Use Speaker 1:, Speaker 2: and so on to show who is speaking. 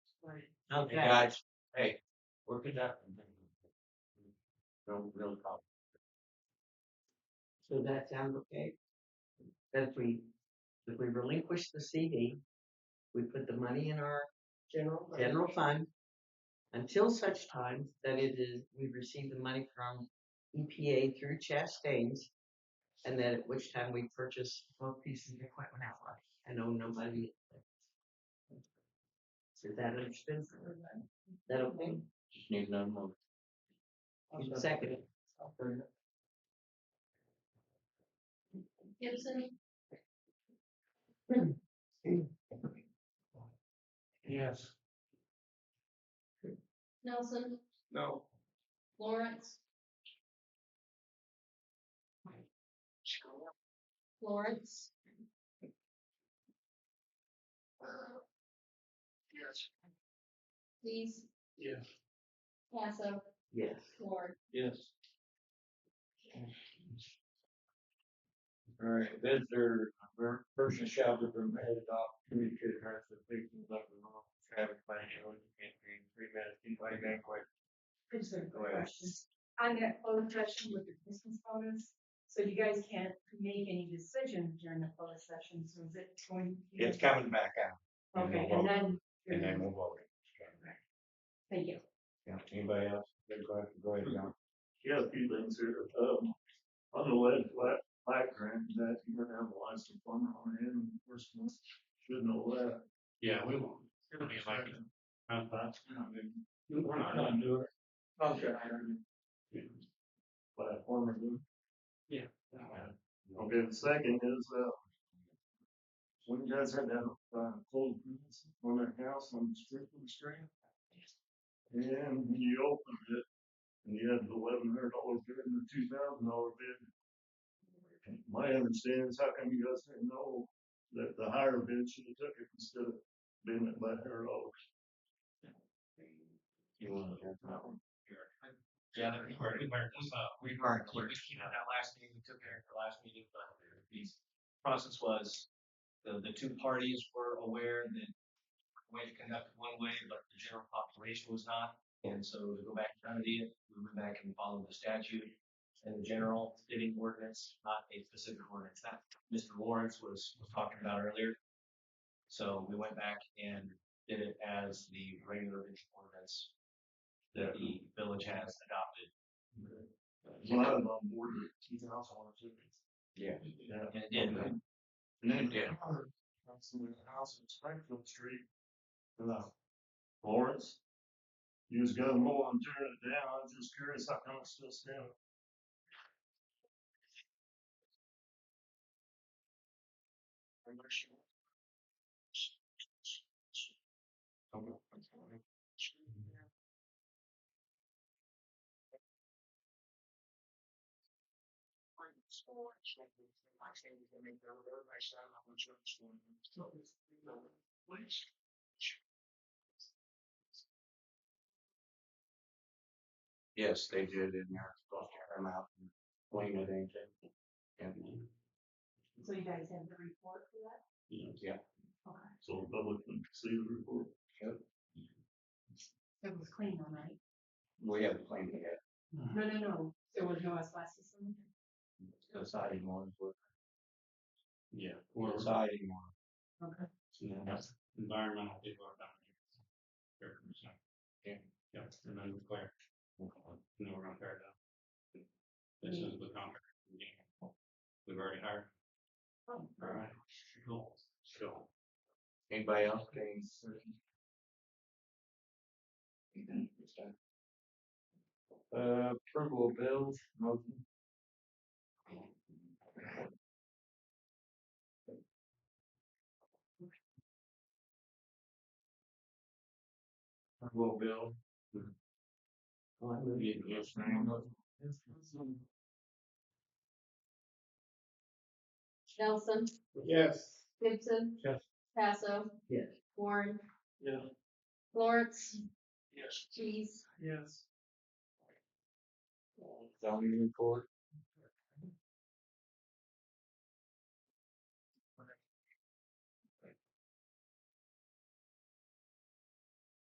Speaker 1: Okay,
Speaker 2: Hey,
Speaker 1: guys,
Speaker 2: guys, hey, work it out. No real problem.
Speaker 1: so that sounds okay. Then if we, if we relinquish the CD, we put the money in our
Speaker 3: General. fund.
Speaker 1: general fund until such time that it is, we receive the money from EPA through Chastain's. And then at which time we purchase both pieces of equipment outright and owe nobody. Is that understood? Is that okay?
Speaker 2: Just need another month.
Speaker 1: You Second. it.
Speaker 3: Gibson,
Speaker 2: Yes.
Speaker 3: Nelson,
Speaker 2: No.
Speaker 3: Lawrence. Lawrence.
Speaker 2: Yes.
Speaker 3: Please.
Speaker 2: Yes.
Speaker 3: Passo,
Speaker 1: Yes.
Speaker 3: Ward,
Speaker 2: Yes. All right, bids are, per- person shall be permitted off community to address the police and let them know. Traffic by showing campaign, three minutes, anybody got a question?
Speaker 4: Just a
Speaker 2: Go
Speaker 4: quick
Speaker 2: ahead.
Speaker 4: question. On that closed session with the Christmas bonus, so you guys can't make any decision during the closed session, so is it going?
Speaker 2: It's coming back out.
Speaker 4: Okay, and then,
Speaker 2: And
Speaker 4: you're-
Speaker 2: then we'll vote.
Speaker 4: thank you.
Speaker 2: Yeah, anybody else? Good question, go ahead, John.
Speaker 5: Yeah, a few things here. Um, on the lead flat, flat grant, that you're gonna have a license plumber on it and first one, should know that.
Speaker 6: Yeah, we won't. It'll be like, uh, but,
Speaker 5: We're not gonna do it. Contractor. Platform or do.
Speaker 6: Yeah.
Speaker 5: Okay, the second is, uh, when you guys had that, uh, cold breeze on that house on Strickland Street. And when you opened it, and you had the eleven hundred dollar bid and the two thousand dollar bid. My understanding is how come you guys didn't know that the higher bid should have took it instead of bidding it by her dollars?
Speaker 2: You want to hear that one?
Speaker 6: yeah, we were, we were, uh, we were, we came out that last meeting, we took care of the last meeting, but the process was, the, the two parties were aware that the way to conduct it one way, but the general population was not, and so to go back and remedy it, we went back and followed the statute and the general bidding ordinance, not a specific ordinance that Mr. Lawrence was, was talking about earlier. So we went back and did it as the regular bidding ordinance that the village has adopted.
Speaker 5: Well, I was on board with it.
Speaker 6: He's also one of two.
Speaker 2: Yeah.
Speaker 5: Yeah.
Speaker 6: And, and,
Speaker 5: And then
Speaker 2: Yeah.
Speaker 5: That's in the house in Springfield Street. Uh, Lawrence. You was gonna mow and tear it down. I was just curious how come it's still standing.
Speaker 2: Yes, they did in there, go tear them out and clean it, ain't it? And,
Speaker 4: So you guys have the report for that?
Speaker 2: yeah,
Speaker 4: Okay,
Speaker 5: So the public can see the report.
Speaker 4: it was clean, all right?
Speaker 2: we haven't cleaned it yet, Mm-hmm.
Speaker 4: No, no, no, there was no asbestos in it?
Speaker 2: the siding ones, were-
Speaker 6: yeah,
Speaker 2: the
Speaker 6: or
Speaker 2: siding ones.
Speaker 4: Okay.
Speaker 6: that's environmental people are down here. Fair percent.
Speaker 2: Yeah.
Speaker 6: Yeah, and then it's clear. No, we're not fair though. This is the contract. We've already hired.
Speaker 4: Oh.
Speaker 6: Alright, cool, so.
Speaker 2: Anybody else got any? Uh, approval of bills, motion. Approval of bill.
Speaker 1: Well, I move-
Speaker 2: Yeah, yes, ma'am.
Speaker 3: Nelson,
Speaker 5: Yes.
Speaker 3: Gibson.
Speaker 2: Yes.
Speaker 3: Passo,
Speaker 1: Yes.
Speaker 3: Warren,
Speaker 5: Yeah.
Speaker 3: Lawrence,
Speaker 5: Yes.
Speaker 3: Keys,
Speaker 5: Yes.
Speaker 2: Zoning report.